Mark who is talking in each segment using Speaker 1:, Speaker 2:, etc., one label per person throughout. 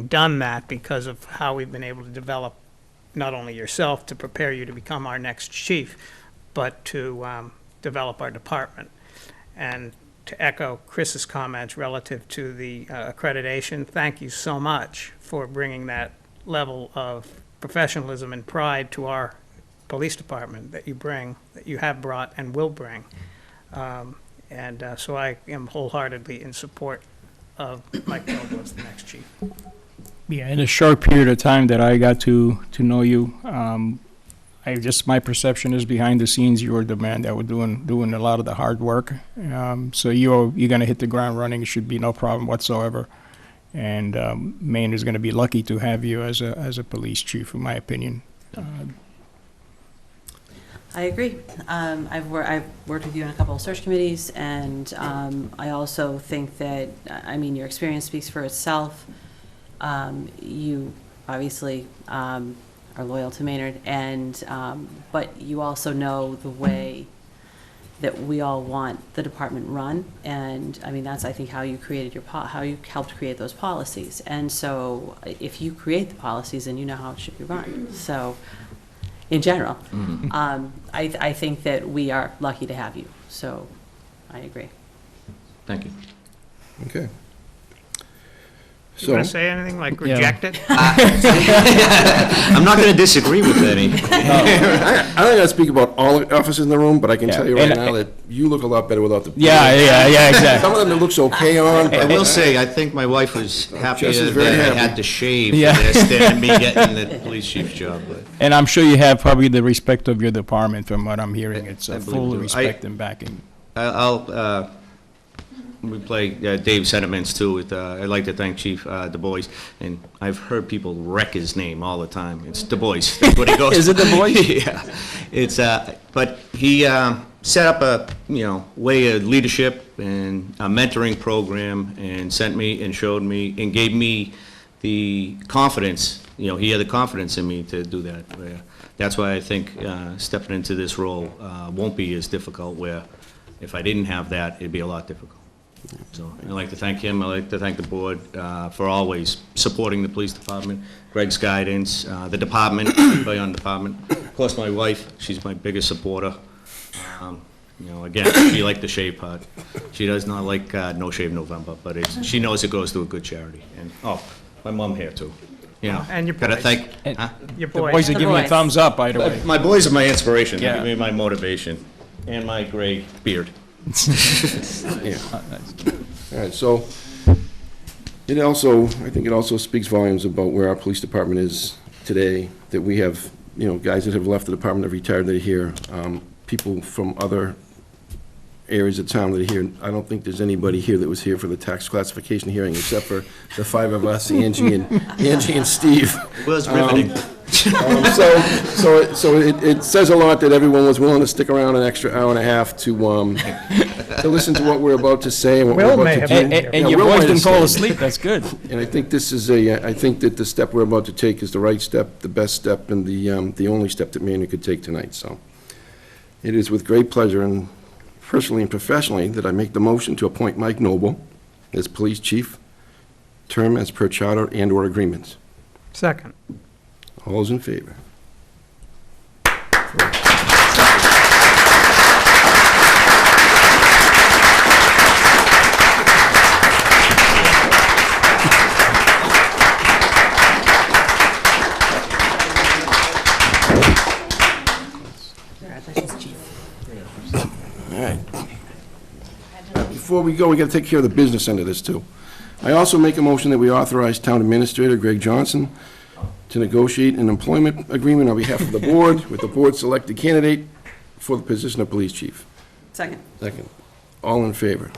Speaker 1: done that because of how we've been able to develop not only yourself to prepare you to become our next chief, but to um, develop our department. And to echo Chris's comments relative to the uh, accreditation, thank you so much for bringing that level of professionalism and pride to our police department that you bring, that you have brought and will bring. Um, And uh, so I am wholeheartedly in support of Mike Noble as the next chief.
Speaker 2: Yeah, in a short period of time that I got to, to know you, um, I just, my perception is behind the scenes, you were the man that were doing, doing a lot of the hard work. Um, so you're, you're gonna hit the ground running, it should be no problem whatsoever. And, um, Maine is gonna be lucky to have you as a, as a police chief, in my opinion. Uh,
Speaker 3: I agree. Um, I've, wor- I've worked with you on a couple of search committees, and um, I also think that, I I mean, your experience speaks for itself. Um, You obviously um, are loyal to Maynard, and, um, but you also know the way that we all want the department run, and, I mean, that's, I think, how you created your, po- how you helped create those policies. And so, i- if you create the policies, then you know how it should be run, so, in general. Um, I, I think that we are lucky to have you, so I agree.
Speaker 4: Thank you.
Speaker 5: Okay.
Speaker 1: You want to
Speaker 5: So,
Speaker 1: say anything, like reject it?
Speaker 4: I'm not going to disagree with any.
Speaker 5: I, I don't gotta speak about all the officers in the room, but I can tell you right
Speaker 2: and-
Speaker 5: now that you look a lot better without the.
Speaker 2: Yeah, yeah, yeah,
Speaker 5: Some
Speaker 2: exactly.
Speaker 5: of them it looks okay on,
Speaker 4: I
Speaker 5: but
Speaker 4: will say, I think my wife was happier
Speaker 5: Oh, Jess is
Speaker 4: that
Speaker 5: very
Speaker 4: I
Speaker 5: happy.
Speaker 4: had to shave
Speaker 2: Yeah.
Speaker 4: for this than me getting the police chief's job, but.
Speaker 2: And I'm sure you have probably the respect of your department from what I'm hearing.
Speaker 4: I-
Speaker 2: It's
Speaker 4: I
Speaker 2: a
Speaker 4: believe
Speaker 2: full
Speaker 4: it. I-
Speaker 2: respect and backing.
Speaker 4: I- I'll, uh, we play uh, Dave's sentiments too with, uh, I'd like to thank Chief uh, DuBois, and I've heard people wreck his name all the time. It's DuBois, that's what he goes.
Speaker 2: Is it Du Bois?
Speaker 4: Yeah. It's, uh, but he um, set up a, you know, way of leadership and a mentoring program and sent me and showed me and gave me the confidence, you know, he had the confidence in me to do that. where- That's why I think uh, stepping into this role uh, won't be as difficult where if I didn't have that, it'd be a lot difficult. So I'd like to thank him, I'd like to thank the board uh, for always supporting the police department, Greg's guidance, uh, the department, everybody on the department. Of course, my wife, she's my biggest supporter. Um, You know, again, she liked the shave part. She does not like uh, No Shave November, but it's, she knows it goes to a good charity. And, oh, my mom here too, you know.
Speaker 1: And your
Speaker 4: Gotta
Speaker 1: boys.
Speaker 4: thank,
Speaker 2: And-
Speaker 4: huh?
Speaker 1: Your
Speaker 2: The
Speaker 1: boy.
Speaker 2: boys are
Speaker 3: The
Speaker 2: giving you a
Speaker 3: boys.
Speaker 2: thumbs up, by the way.
Speaker 4: My boys are my inspiration, they
Speaker 2: Yeah.
Speaker 4: give me my motivation, and my gray beard.
Speaker 5: all right, so it also, I think it also speaks volumes about where our police department is today, that we have, you know, guys that have left the department, have retired, that are here, um, people from other areas of town that are here. I don't think there's anybody here that was here for the tax classification hearing, except for the five of us, Angie and, Angie and Steve.
Speaker 4: Well, it's riveting.
Speaker 5: Um, So, so, it- so it, it says a lot that everyone was willing to stick around an extra hour and a half to, um, to listen to what we're about to say and what we're
Speaker 1: Will may
Speaker 5: about to
Speaker 1: have
Speaker 5: do.
Speaker 1: been
Speaker 2: And,
Speaker 1: here.
Speaker 2: and-
Speaker 5: Yeah,
Speaker 2: and your
Speaker 5: Will
Speaker 2: boys
Speaker 5: might have
Speaker 2: didn't fall
Speaker 5: stayed.
Speaker 2: asleep, that's good.
Speaker 5: And I think this is a, I think that the step we're about to take is the right step, the best step, and the, um, the only step that Maynard could take tonight, so. It is with great pleasure and personally and professionally that I make the motion to appoint Mike Noble as police chief, term as per charter and/or agreements.
Speaker 1: Second.
Speaker 5: All those in favor?
Speaker 3: Congratulations, Chief.
Speaker 5: Before we go, we got to take care of the business end of this, too. I also make a motion that we authorize Town Administrator Greg Johnson to negotiate an employment agreement on behalf of the board with the board-selected candidate for the position of police chief.
Speaker 3: Second.
Speaker 5: Second. All in favor?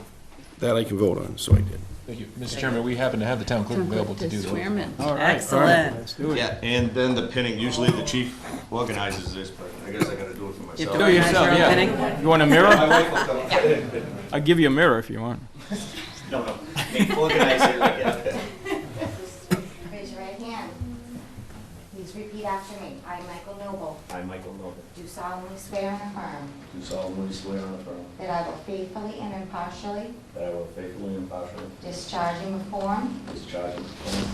Speaker 5: That I can vote on, so I did.
Speaker 6: Thank you. Mr. Chairman, we happen to have the town clerk available to do those.
Speaker 3: Excellent.
Speaker 4: Yeah, and then the pinning, usually the chief organizes this, but I guess I gotta do it for myself.
Speaker 3: Do
Speaker 2: yourself, yeah. You want a mirror? I'll give you a mirror if you want.
Speaker 4: No, no, they organize it like that.
Speaker 7: Raise your right hand. Please repeat after me. I, Michael Noble,
Speaker 4: I, Michael Noble,
Speaker 7: do solemnly swear and affirm
Speaker 4: do solemnly swear and affirm
Speaker 7: that I will faithfully and impartially
Speaker 4: that I will faithfully and impartially
Speaker 7: discharge and perform
Speaker 4: discharge and perform